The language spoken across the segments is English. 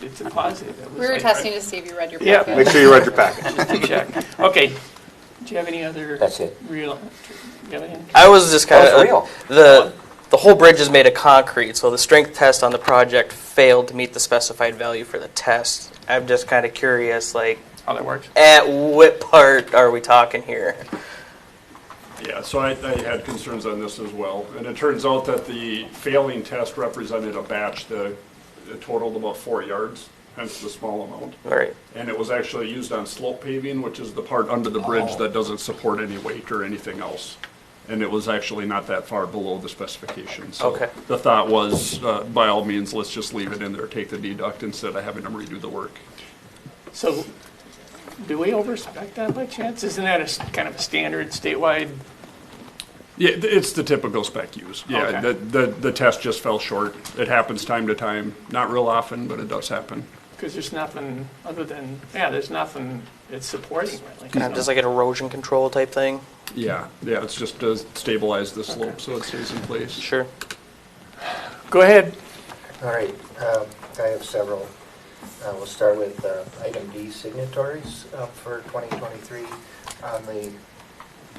it's a positive. It was We were like- testing to see if you read your Yeah. packet. Make sure you read your packet. Just to check. Okay, do you have any other? That's it. Real, do you have any? I was just kind That of was real. the the whole bridge is made of concrete, so the strength test on the project failed to meet the specified value for the test. I'm just kind of curious, like, How that works? at what part are we talking here? Yeah, so I, I had concerns on this as well, and it turns out that the failing test represented a batch that that totaled about four yards, hence the small amount. All right. And it was actually used on slope paving, which is the part under the bridge that doesn't support any weight or anything else. And it was actually not that far below the specifications. So Okay. The thought was, uh, by all means, let's just leave it in there, take the deduct instead of having them redo the work. So, do we overspec that by chance? Isn't that a s- kind of a standard statewide? Yeah, th- it's the typical spec used. Yeah, Okay. the, the, the test just fell short. It happens time to time, not real often, but it does happen. Because there's nothing other than, yeah, there's nothing it's supporting really. Kind of just like an erosion control type thing. Yeah, yeah, it's just to stabilize the slope so it stays in place. Sure. Go ahead. All right, um, I have several. Uh, We'll start with uh, item D, signatories um, for 2023. On the,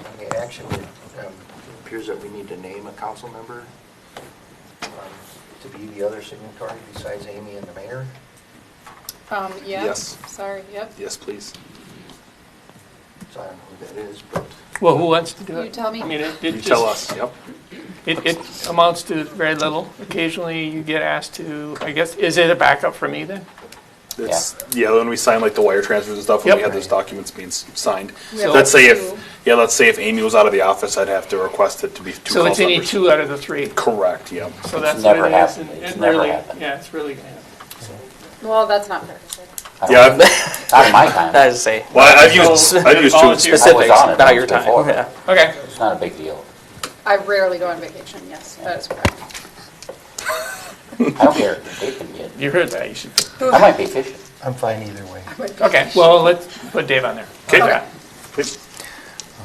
on the action, it um, appears that we need to name a council member um, to be the other signatory besides Amy and the mayor. Um, yeah. Yes. Sorry, yep. Yes, please. So I don't know who that is, but Well, who wants to do it? You tell me. I mean, it, it You just- tell us, yep. It, it amounts to very little. Occasionally you get asked to, I guess, is it a backup for me then? It's, yeah, when we sign like the wire transfers and stuff, when we Yep. have those documents being s- signed. We have Let's say two. if, yeah, let's say if Amy was out of the office, I'd have to request it to be two So it's council any members. two out of the three. Correct, yep. So that's what never it is. happened. and It's it never really- happened. Yeah, it's really, Well, that's not fair. is it? Yeah, I've- Not in my time. That is to say well, I've used, I've used Volunteer. two. I was specifics, on it not your once time. before. Yeah. okay. It's not a big deal. I rarely go on vacation, yes, that is correct. I don't care. They can get. You heard that, you should, I might be fishing. I'm fine either way. okay, well, let's put Dave on there. Okay. Please.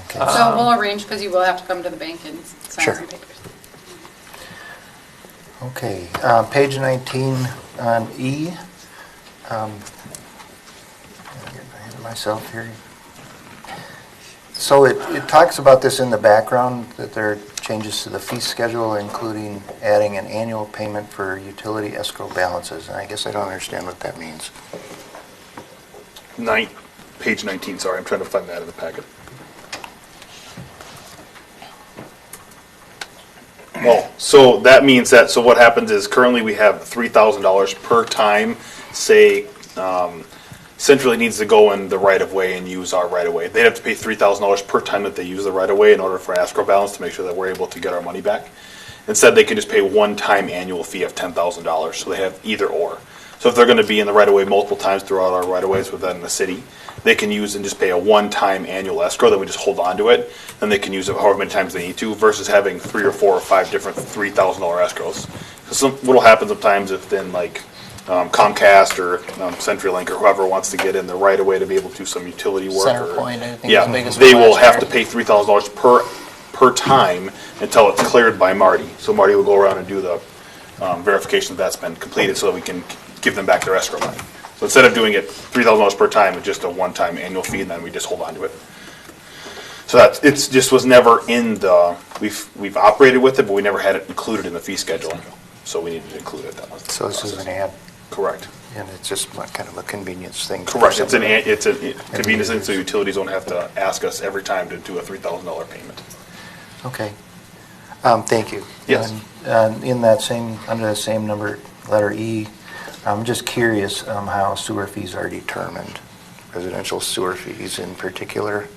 Okay. So we'll arrange, because you will have to come to the bank and sign Sure. some papers. Okay, uh, page 19 on E. Um, I'm getting ahead of Myself here. So it, it talks about this in the background, that there are changes to the fee schedule, including adding an annual payment for utility escrow balances. And I guess I don't understand what that means. Nine, page nineteen, sorry, I'm trying to find that in the packet. Well, so that means that, so what happens is currently we have three thousand dollars per time, say, um, Centrally needs to go in the right of way and use our right of way. They'd have to pay three thousand dollars per time that they use the right of way in order for escrow balance to make sure that we're able to get our money back. Instead, they can just pay one-time annual fee of ten thousand dollars, so they have either or. So if they're gonna be in the right of way multiple times throughout our right of ways within the city, they can use and just pay a one-time annual escrow, then we just hold on to it, then they can use it however many times they need to, versus having three or four or five different three thousand dollar escrows. 'Cause some, what'll happen sometimes if then like, um, Comcast or um, CenturyLink or whoever wants to get in the right of way to be able to do some utility work. or- Centerpoint, I think, was Yeah, the biggest they one will last have year. to pay three thousand dollars per, per time until it's cleared by Marty. So Marty will go around and do the um, verification that that's been completed so that we can give them back their escrow money. So instead of doing it three thousand dollars per time, it's just a one-time annual fee and then we just hold on to it. So that's, it's, just was never in the, we've, we've operated with it, but we never had it included in the fee schedule. So we needed to include it. That was the So this is an process. ad, Correct. and it's just like kind of a convenience thing. for Correct, it's an, somebody. it's a convenience, thing, so utilities don't have to ask us every time to do a three thousand dollar payment. Okay. Um, Thank you. Yes. And um, in that same, under that same number, letter E, I'm just curious um, how sewer fees are determined, residential sewer fees in particular.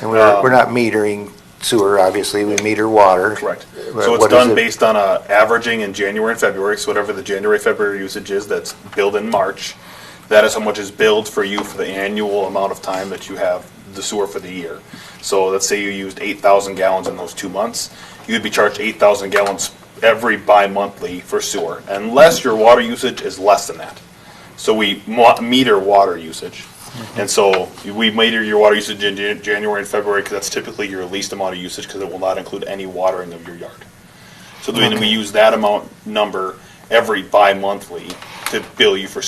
And we're, Um, we're not metering sewer, obviously, we meter water. Correct. But So it's Uh, what is done it- based on a averaging in January and February, so whatever the January, February usage is that's billed in March, that is how much is billed for you for the annual amount of time that you have the sewer for the year. So let's say you used eight thousand gallons in those two months, you'd be charged eight thousand gallons every bi-monthly for sewer, unless your water usage is less than that. So we mo- meter water usage. And so we meter your water usage in Jan- January and February because that's typically your least amount of usage because it will not include any watering of your yard. So then we use that amount number every bi-monthly to bill you for